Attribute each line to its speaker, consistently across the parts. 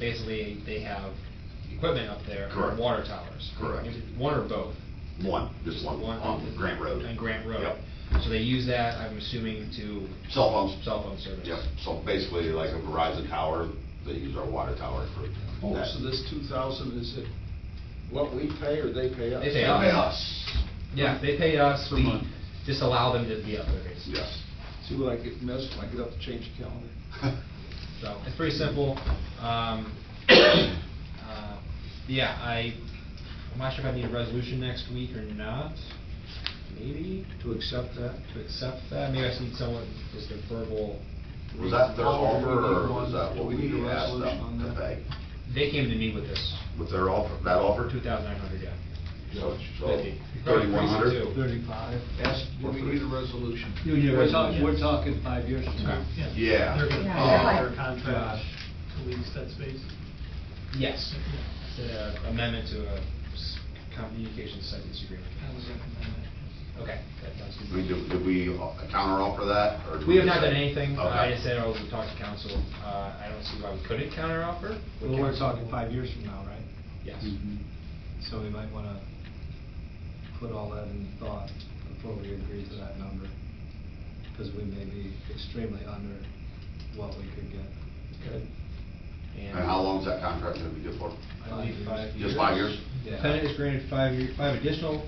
Speaker 1: basically, they have equipment up there. or
Speaker 2: Correct.
Speaker 1: Water towers.
Speaker 2: Correct.
Speaker 1: Is it One or both?
Speaker 2: One, just one, on Grant Road.
Speaker 1: On Grant Road.
Speaker 2: Yep.
Speaker 1: So they use that, I'm assuming, to
Speaker 2: Cell phones.
Speaker 1: cell phone service.
Speaker 2: Yep, so basically like a Verizon tower, they use our water tower for
Speaker 3: Oh,
Speaker 2: that.
Speaker 3: so this two thousand, is it what we pay or they pay us?
Speaker 1: They
Speaker 2: They
Speaker 1: pay
Speaker 2: pay us,
Speaker 1: Yeah, they pay us,
Speaker 4: Per
Speaker 1: we
Speaker 4: month.
Speaker 1: just allow them to be up there, basically.
Speaker 2: yes.
Speaker 3: See what I get missed when I get up to change the calendar?
Speaker 1: So it's pretty simple. Um, uh, Yeah, I, I'm not sure if I need a resolution next week or not, maybe,
Speaker 3: To accept that?
Speaker 1: to accept that. Maybe I just need someone, just a verbal,
Speaker 2: Was that their
Speaker 3: Oh,
Speaker 2: offer,
Speaker 3: do we
Speaker 2: or
Speaker 3: need
Speaker 2: was
Speaker 3: one?
Speaker 2: that
Speaker 3: Do
Speaker 2: what
Speaker 3: we need
Speaker 2: we
Speaker 3: a
Speaker 2: asked
Speaker 3: resolution on
Speaker 2: them to
Speaker 3: that?
Speaker 2: pay?
Speaker 1: they came to me with this
Speaker 2: With their offer, that
Speaker 1: for
Speaker 2: offer?
Speaker 1: two thousand nine hundred, yeah.
Speaker 2: So,
Speaker 1: Fifty.
Speaker 2: thirty-one
Speaker 1: Probably
Speaker 2: hundred?
Speaker 1: increase
Speaker 3: Thirty-five. Ask, do we need a resolution?
Speaker 1: it too.
Speaker 5: We're talking, we're
Speaker 1: Yeah.
Speaker 5: talking five years from now.
Speaker 1: Okay.
Speaker 2: Yeah.
Speaker 6: They're gonna pay
Speaker 2: Oh.
Speaker 6: out their contract to lease that space.
Speaker 1: Yes, it's an amendment to a s- communications site lease agreement.
Speaker 6: I would recommend that.
Speaker 1: Okay, that sounds good.
Speaker 2: We, did did we counter offer that, or? did
Speaker 1: We have
Speaker 2: just
Speaker 1: not done
Speaker 2: say-
Speaker 1: anything, Uh, I
Speaker 2: Okay.
Speaker 1: just said, oh, we talked to council, uh, I don't see why we couldn't counteroffer.
Speaker 5: Well, we're talking five years from now, right?
Speaker 1: Yes,
Speaker 2: Mm-hmm.
Speaker 5: So we might want to put all that in thought before we agree to that number, because we may be extremely under what we could get.
Speaker 3: Okay.
Speaker 1: and.
Speaker 2: And how long's that contract gonna be good for?
Speaker 1: I believe five years.
Speaker 2: Just five years?
Speaker 5: Yeah.
Speaker 1: Tenant is granted five year, five additional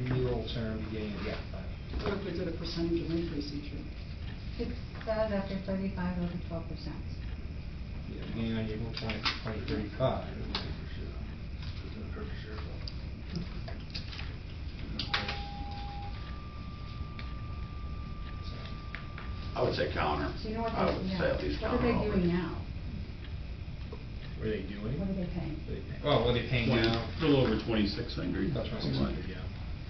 Speaker 1: renewal term beginning, of- yeah, five.
Speaker 7: What if we did a percentage of increase each year?
Speaker 8: It says after uh, thirty-five over twelve percent.
Speaker 1: Yeah, beginning on April twenty, twenty thirty-five.
Speaker 2: I would say counter.
Speaker 8: So you know what
Speaker 2: I would
Speaker 8: they,
Speaker 2: say at least
Speaker 8: yeah, what are
Speaker 2: counter
Speaker 8: they
Speaker 2: offer.
Speaker 8: doing now?
Speaker 1: What are they doing?
Speaker 8: What are they paying?
Speaker 1: What are they paying? Oh, what are they paying
Speaker 4: Twenty-
Speaker 1: now?
Speaker 4: A little over twenty-six hundred.
Speaker 1: About twenty-six hundred, yeah.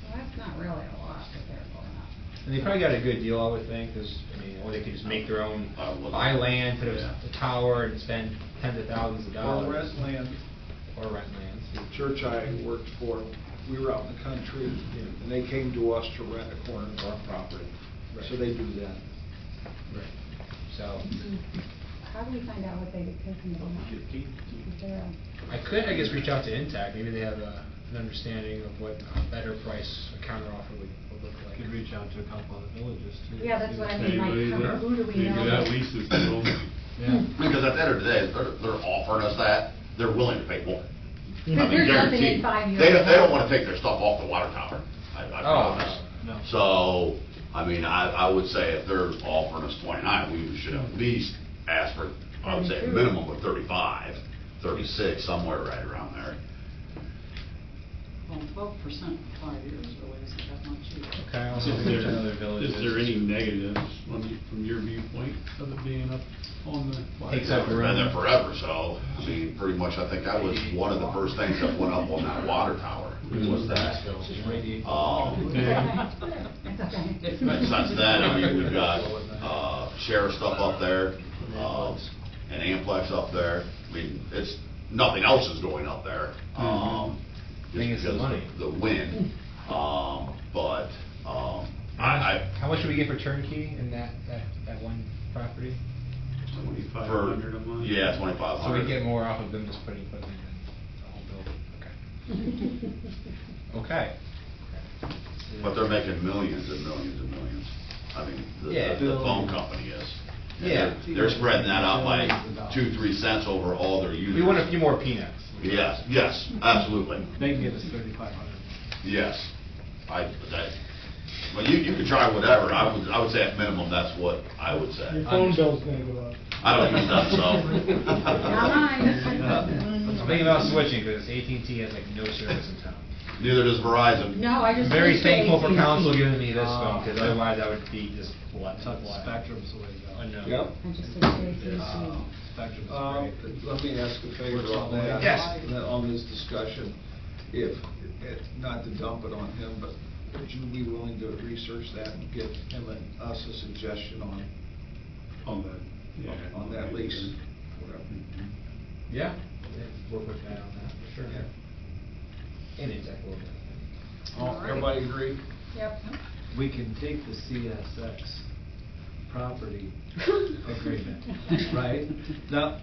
Speaker 8: Well, that's not really a lot that they're going up.
Speaker 1: And they probably got a good deal, I would think, because, I mean, or they could just make their own,
Speaker 2: I would.
Speaker 1: buy land, put
Speaker 4: Uh, Yeah.
Speaker 1: a a tower, and spend tens of thousands of dollars.
Speaker 3: Or rent land.
Speaker 1: Or rent lands.
Speaker 3: The church I worked for, we were out in the country, and they came to us to rent a corner of our property. So they do that.
Speaker 1: Right. So,
Speaker 8: Mm-hmm. How do we find out what they get paid from the owner? Is there a,
Speaker 1: I could, I guess, reach out to Intact, maybe they have a, an understanding of what a better price, a counter offer would, would look
Speaker 5: We
Speaker 1: like.
Speaker 5: Could reach out to a couple of the villages too.
Speaker 8: Yeah, that's
Speaker 5: see
Speaker 8: what I
Speaker 5: if
Speaker 8: mean, like,
Speaker 4: Anybody
Speaker 8: how-
Speaker 4: that-
Speaker 8: who do we
Speaker 4: you
Speaker 8: know?
Speaker 4: got leases to them.
Speaker 1: Hmm.
Speaker 5: Yeah.
Speaker 2: Because at the end of the day, if they're, they're offering us that, they're willing to pay more. I
Speaker 8: Because
Speaker 2: mean,
Speaker 8: there's nothing
Speaker 2: guaranteed.
Speaker 8: in five years.
Speaker 2: They don't, they don't wanna take their stuff off the water tower, I, I
Speaker 1: Oh,
Speaker 2: promise.
Speaker 5: no. No.
Speaker 2: So, I mean, I, I would say if they're offering us twenty-nine, we should at least ask for, I would say a
Speaker 8: 32.
Speaker 2: minimum of 35, 36, somewhere right around there.
Speaker 7: Well, twelve percent for five years really isn't that much either.
Speaker 1: Okay, I'll
Speaker 4: Is
Speaker 1: also
Speaker 4: there-
Speaker 1: reach out to
Speaker 4: Is there any negatives from, y- from your viewpoint of it being up on the? water
Speaker 1: Takes up
Speaker 4: tower?
Speaker 1: around-
Speaker 2: Been there forever, so, I mean, pretty much, I think that was one of the first things that went up on that water tower, was that. Um,
Speaker 4: Yeah.
Speaker 8: That's okay.
Speaker 2: But since then, I mean, we've got uh, sheriff stuff up there, uh, an Amplex up there. I mean, it's, nothing else is going up there. um, just
Speaker 1: Mm-hmm. Thing is the
Speaker 2: because of
Speaker 1: money.
Speaker 2: The wind, um, but, um, I,
Speaker 1: How much do we get for turnkey in that, that, that one property?
Speaker 2: I.
Speaker 4: Twenty-five
Speaker 2: for-
Speaker 4: hundred a month?
Speaker 2: Yeah, twenty-five
Speaker 1: So we get
Speaker 2: hundred.
Speaker 1: more off of them just putting equipment in the whole building, okay. Okay.
Speaker 2: But they're making millions and millions and millions. I mean, the-
Speaker 1: Yeah.
Speaker 2: the, the phone company is. And they're-
Speaker 1: Yeah.
Speaker 2: They're spreading that out by two, three cents over all their users.
Speaker 1: We want a few more peanuts.
Speaker 2: Yes, yes, absolutely.
Speaker 5: They can give us thirty-five hundred.
Speaker 2: Yes, I, that, well, you, you can try whatever, I would, I would say at minimum, that's what I would say.
Speaker 6: Your phone bill's gonna go up.
Speaker 2: I don't use that,
Speaker 8: Not
Speaker 2: so.
Speaker 8: mine.
Speaker 1: I'm thinking about switching, because AT&T has like no service in town.
Speaker 2: Neither does Verizon.
Speaker 8: No, I just.
Speaker 1: Very
Speaker 8: wish they-
Speaker 1: thankful for council giving me this phone, because
Speaker 5: Ah.
Speaker 8: Uh,
Speaker 1: otherwise I would be just blood.
Speaker 5: Spectrum's the way to go.
Speaker 1: Unknown.
Speaker 3: Yep.
Speaker 8: I just wish they refused to.
Speaker 5: Uh, Spectrum's
Speaker 3: Uh,
Speaker 5: great.
Speaker 3: Let me ask a favor on that.
Speaker 1: Yes.
Speaker 3: and then On this discussion, if, it- not to dump it on him, but would you be willing to research that and give him and us a suggestion on,
Speaker 4: On the, yeah.
Speaker 3: on that lease? Whatever.
Speaker 4: Mhm.
Speaker 1: Yeah, yeah, work with that on that, for sure. And exact work.
Speaker 3: All- Everybody agree?
Speaker 8: Yep.
Speaker 5: We can take the CSX property agreement, right? Now,